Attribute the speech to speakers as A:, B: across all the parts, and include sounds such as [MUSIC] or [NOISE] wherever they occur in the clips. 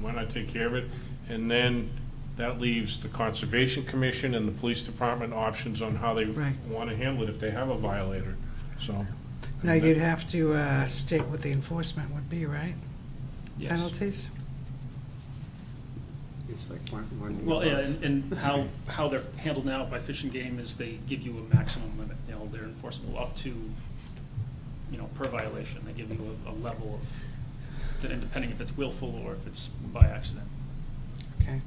A: why not take care of it? And then that leaves the Conservation Commission and the Police Department options on how they
B: Right.
A: want to handle it if they have a violator, so.
B: Now, you'd have to uh, state what the enforcement would be, right? Penalties?
C: It's like one, one.
D: Well, yeah, and, and how, how they're handled now by Fish and Game is they give you a maximum limit, you know, they're enforceable up to, you know, per violation, they give you a, a level of, then depending if it's willful or if it's by accident.
B: Okay.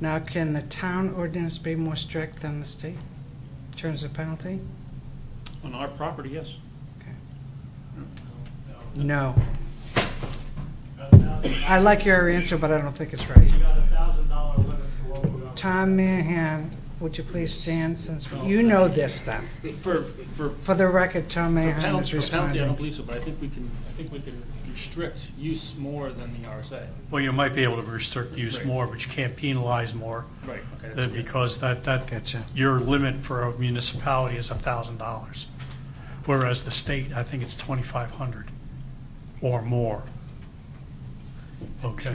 B: Now, can the town ordinance be more strict than the state in terms of penalty?
D: On our property, yes.
B: Okay.
D: You
B: No.
E: Got a thousand-
B: I like your answer, but I don't think it's right.
E: you got a thousand dollar limit for what we're on.
B: Tom Mahan, would you please stand since you know this stuff?
D: know, For, for
B: For the record, Tom
D: For
B: Mahan
D: penalty,
B: is
D: for penalty, I
B: responding.
D: don't believe so, but I think we can, I think we can restrict use more than the RSA.
F: Well, you might be able to restrict use
D: Right.
F: more, but you can't penalize more,
D: Right. Okay.
F: uh,
D: that's-
F: because that, that,
B: Gotcha.
F: your limit for a municipality is a thousand dollars. Whereas the state, I think it's twenty-five hundred or more. Okay,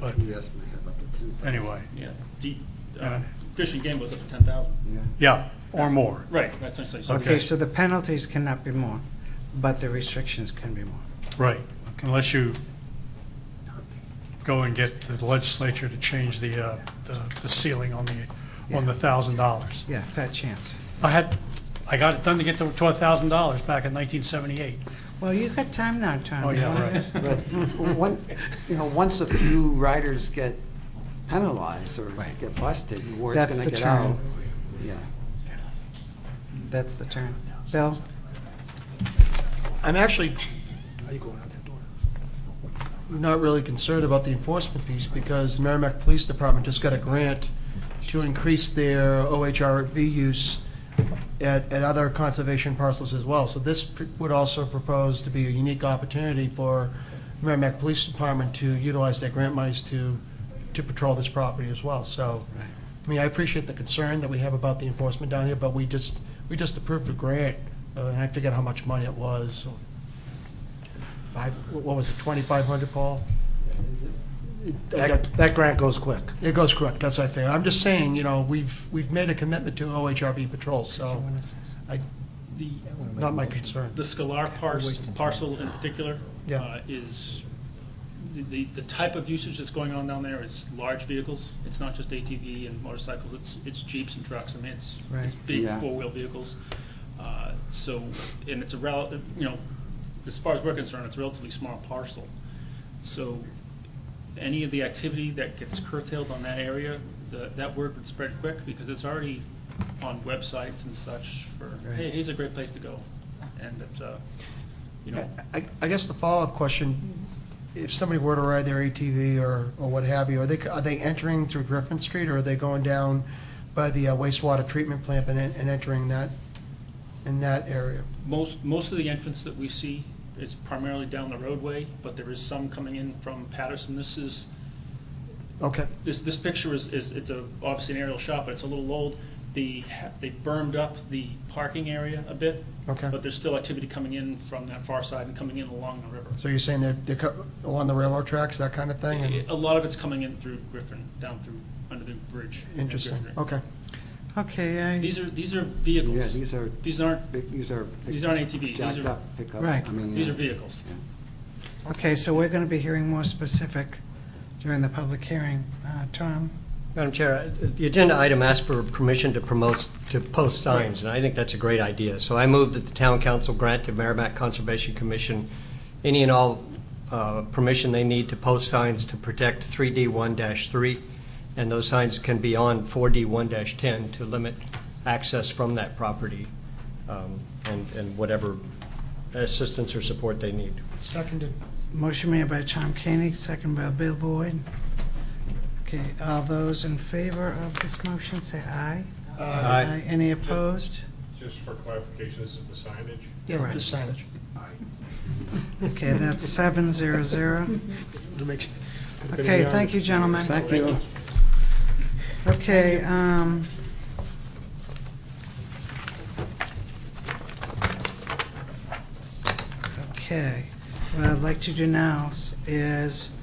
F: but
C: Yes, may have up to ten.
F: anyway,
D: Yeah, deep, uh,
F: Yeah.
D: fishing game was up to ten thousand.
F: yeah, or more.
D: Right, that's essentially, so
B: Okay, so the penalties cannot be more, but the restrictions can be more.
F: Right, unless you go and get the legislature to change the, uh, the- the ceiling on the, on the thousand dollars.
B: Yeah, fat chance.
F: I had, I got it done to get to twelve thousand dollars back in nineteen seventy-eight.
B: Well, you got time now, Tom.
F: Oh, yeah,
B: Mahan.
F: right.
C: But
G: [LAUGHS]
C: one, you know, once a few riders get penalized or
B: Right.
C: get busted, the word's
B: That's
C: gonna
B: the
C: get out.
B: term.
C: Yeah.
B: That's the term. Bill?
G: I'm actually not really concerned about the enforcement piece because the Merrimack Police Department just got a grant to increase their OHRV use at, at other conservation parcels as well. So this pr- would also propose to be a unique opportunity for Merrimack Police Department to utilize their grant monies to, to patrol this property as well. So, I mean, I appreciate the concern that we have about the enforcement down here, but we just, we just approved a grant, uh, and I forget how much money it was. Five, what was it, 2,500, Paul? That-
H: That grant goes quick.
G: It goes correct, that's what I figure. I'm just saying, you know, we've, we've made a commitment to OHRV patrol, so I,
D: the,
G: not my concern.
D: the Scalar pars- parcel in particular
G: Yeah.
D: uh, is, the- the, the type of usage that's going on down there is large vehicles. It's not just ATV and motorcycles, it's, it's Jeeps and trucks, I mean, it's, it's
B: Right.
D: big
C: Yeah.
D: four-wheel vehicles. Uh, So, and it's a rel, you know, as far as we're concerned, it's a relatively small parcel. So any of the activity that gets curtailed on that area, the- that word would spread quick because it's already on websites and such for, hey, here's a great place to go. And it's, uh, you know,
G: I, I guess the follow-up question, if somebody were to ride their ATV or, or what have you, are they, are they entering through Griffin Street or are they going down by the uh, wastewater treatment plant and, en- and entering that, in that area?
D: most, most of the entrance that we see is primarily down the roadway, but there is some coming in from Patterson. This is,
G: Okay,
D: this, this picture is, is, it's a, obviously an aerial shot, but it's a little old. The, they bermed up the parking area a bit,
G: okay.
D: but there's still activity coming in from that far side and coming in along the river.
G: So you're saying they're, they're co- along the railroad tracks, that kind of thing? and-
D: A lot of it's coming in through Griffin, down through, under the bridge. at
G: Interesting,
D: Griffin.
G: okay.
B: Okay,
D: These are, these are
C: Yeah,
D: vehicles.
C: these are,
D: These aren't,
C: big- these are.
D: these aren't ATVs, these
C: Jacked
D: are,
C: up pickup.
B: Right.
C: I mean,
D: these
C: yeah.
D: are vehicles.
B: I, okay, so we're going to be hearing more specific during the public hearing. Uh, Tom?
H: Madam Chair, the agenda item asks for permission to promote, to post signs, and I think that's a great idea. So I move that the town council grant to Merrimack Conservation Commission any and all uh, permission they need to post signs to protect 3D1-3, and those signs can be on 4D1-10 to limit access from that property um, and and whatever assistance or support they need.
G: Seconded.
B: Motion made by Tom Koenig, second by Bill Boyd. Okay, all those in favor of this motion, say aye.
H: Aye.
B: Any opposed?
A: Just for clarification, this is the signage?
G: Yeah,
B: Correct.
G: just signage.
B: Okay, that's seven zero zero. Okay, thank you, gentlemen.
C: Thank you.
B: Okay, um, okay, what I'd like to do now s- is